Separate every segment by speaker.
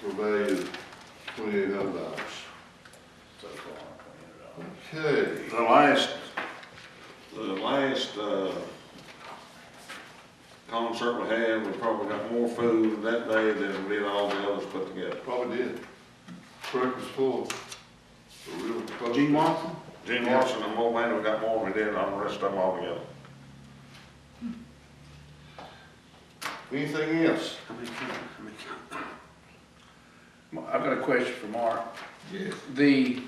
Speaker 1: for a value of twenty-eight hundred dollars.
Speaker 2: so far.
Speaker 1: Okay,
Speaker 2: The last, the last, uh, concert we had, we probably got more food that day than we did all the others put together.
Speaker 1: probably did. Truck was full. A real close-
Speaker 2: Gene Watson? Gene Watson and Mo Manning, we got more than we did on the rest of them all together.
Speaker 1: Anything else?
Speaker 3: I've got a question for Mark.
Speaker 1: Yes.
Speaker 3: The,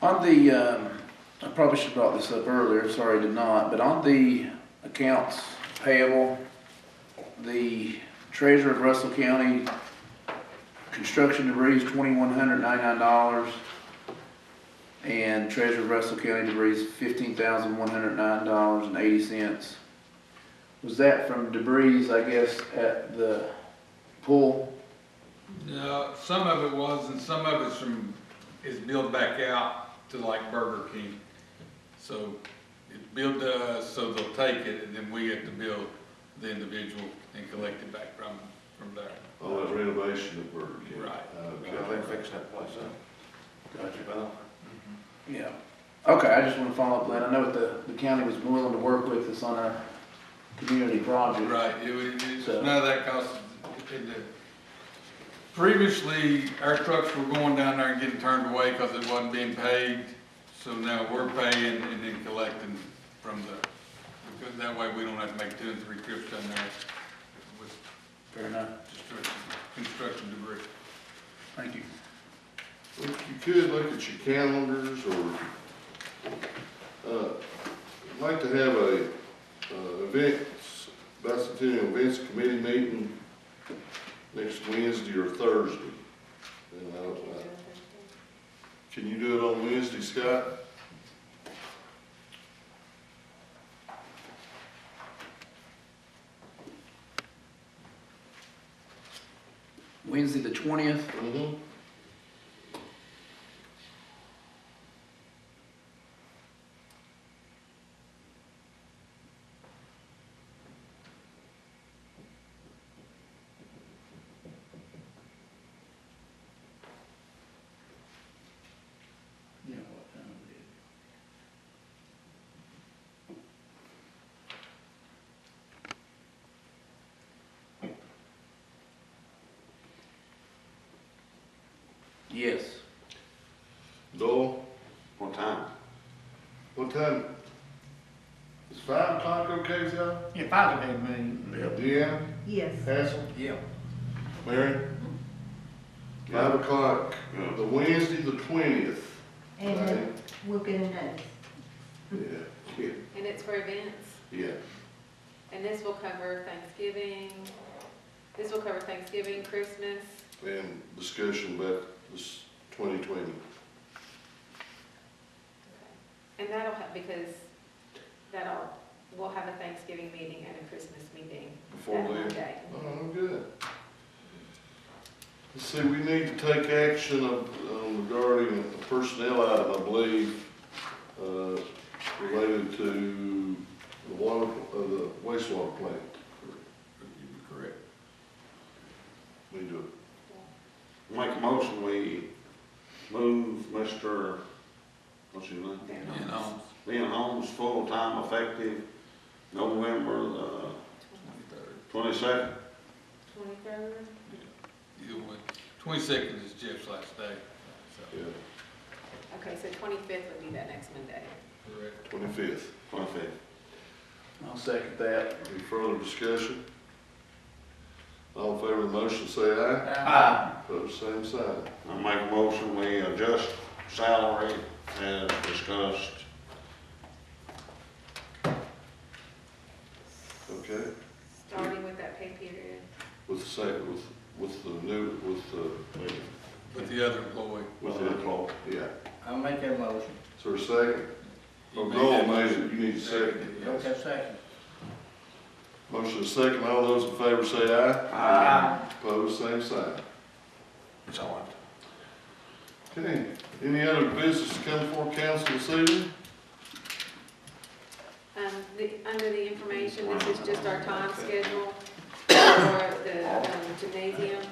Speaker 3: on the, um, I probably should have brought this up earlier, sorry I did not, but on the accounts payable, the treasurer of Russell County, construction debris is twenty-one hundred ninety-nine dollars, and treasurer of Russell County debris is fifteen thousand one hundred nine dollars and eighty cents. Was that from debris, I guess, at the pool?
Speaker 4: No, some of it was, and some of it's from, is billed back out to like Burger King. So it's billed to us, so they'll take it, and then we have to bill the individual and collect it back from, from there.
Speaker 1: All that Oh, renovation of Burger King.
Speaker 4: Right.
Speaker 1: Okay.
Speaker 2: they fixed that place up. Got you, Bill?
Speaker 3: Yeah. Okay, I just want to follow up, Lynn. I know that the county was willing to work with us on a community project.
Speaker 4: Right, it was, it's
Speaker 3: So-
Speaker 4: none of that cost, it- it- previously, our trucks were going down there and getting turned away because it wasn't being paid. So now we're paying and then collecting from the, because that way we don't have to make two and three trips down there with
Speaker 3: Fair enough.
Speaker 4: Destruction, construction debris.
Speaker 3: Thank you.
Speaker 1: If you could, look at your calendars or, uh, I'd like to have a, uh, events, bicentennial events committee meeting next Wednesday or Thursday. And I don't know. Can you do it on Wednesday, Scott?
Speaker 3: Wednesday, the twentieth.
Speaker 1: Mm-hmm.
Speaker 3: Yeah, what time is it? Yes.
Speaker 1: Dole,
Speaker 2: What time?
Speaker 1: what time? Is five o'clock okay, with y'all?
Speaker 5: If I'd have had money,
Speaker 1: Deanna,
Speaker 6: Yes.
Speaker 1: Hassel,
Speaker 3: Yeah.
Speaker 1: Mary? Five o'clock,
Speaker 2: Yeah.
Speaker 1: the Wednesday, the twentieth.
Speaker 6: And then we'll get a notice.
Speaker 1: Yeah, yeah,
Speaker 7: And it's for events,
Speaker 1: yeah.
Speaker 7: and this will cover Thanksgiving, this will cover Thanksgiving, Christmas,
Speaker 1: and discussion about this twenty twenty.
Speaker 7: and that'll have, because that'll, we'll have a Thanksgiving meeting and a Christmas meeting
Speaker 1: Before
Speaker 7: that
Speaker 1: we-
Speaker 7: Monday.
Speaker 1: Oh, good. Let's see, we need to take action of- um, regarding a personnel item, I believe, uh, related to the water, uh, the wastewater plant.
Speaker 4: Correct.
Speaker 1: We do
Speaker 2: Make a motion, we move Mr., what's his name?
Speaker 7: Then
Speaker 4: You know,
Speaker 2: Leon Holmes, full-time effective November, uh,
Speaker 4: twenty-third,
Speaker 2: twenty-second.
Speaker 7: Twenty-third,
Speaker 4: either way, twenty-second is Jeff's last day, so,
Speaker 1: it, yeah,
Speaker 7: okay, so twenty-fifth would be that next Monday.
Speaker 4: correct.
Speaker 1: twenty-fifth.
Speaker 2: Twenty-fifth.
Speaker 3: I'll second that.
Speaker 1: Any further discussion? All in favor of the motion, say
Speaker 5: Uh,
Speaker 1: aye. Opposed, same sign.
Speaker 2: I make a motion, we adjust salary as discussed.
Speaker 1: Okay.
Speaker 7: Starting with that pay period,
Speaker 1: With the same, with, with the new, with the,
Speaker 2: with-
Speaker 4: But the other employee.
Speaker 2: With the employee.
Speaker 1: yeah.
Speaker 5: I'll make that motion.
Speaker 1: So a second?
Speaker 4: he
Speaker 1: Oh,
Speaker 4: made
Speaker 1: Dole
Speaker 4: that
Speaker 1: made
Speaker 4: motion.
Speaker 1: it, you need a second.
Speaker 4: Yes.
Speaker 5: Okay, second.
Speaker 1: Motion is second, all those in favor say aye.
Speaker 2: Aye.
Speaker 1: Opposed, same sign.
Speaker 2: That's all I have.
Speaker 1: Okay, any other business to come before council this evening?
Speaker 7: um, the, under the information, this is just our time schedule for the um, gymnasium.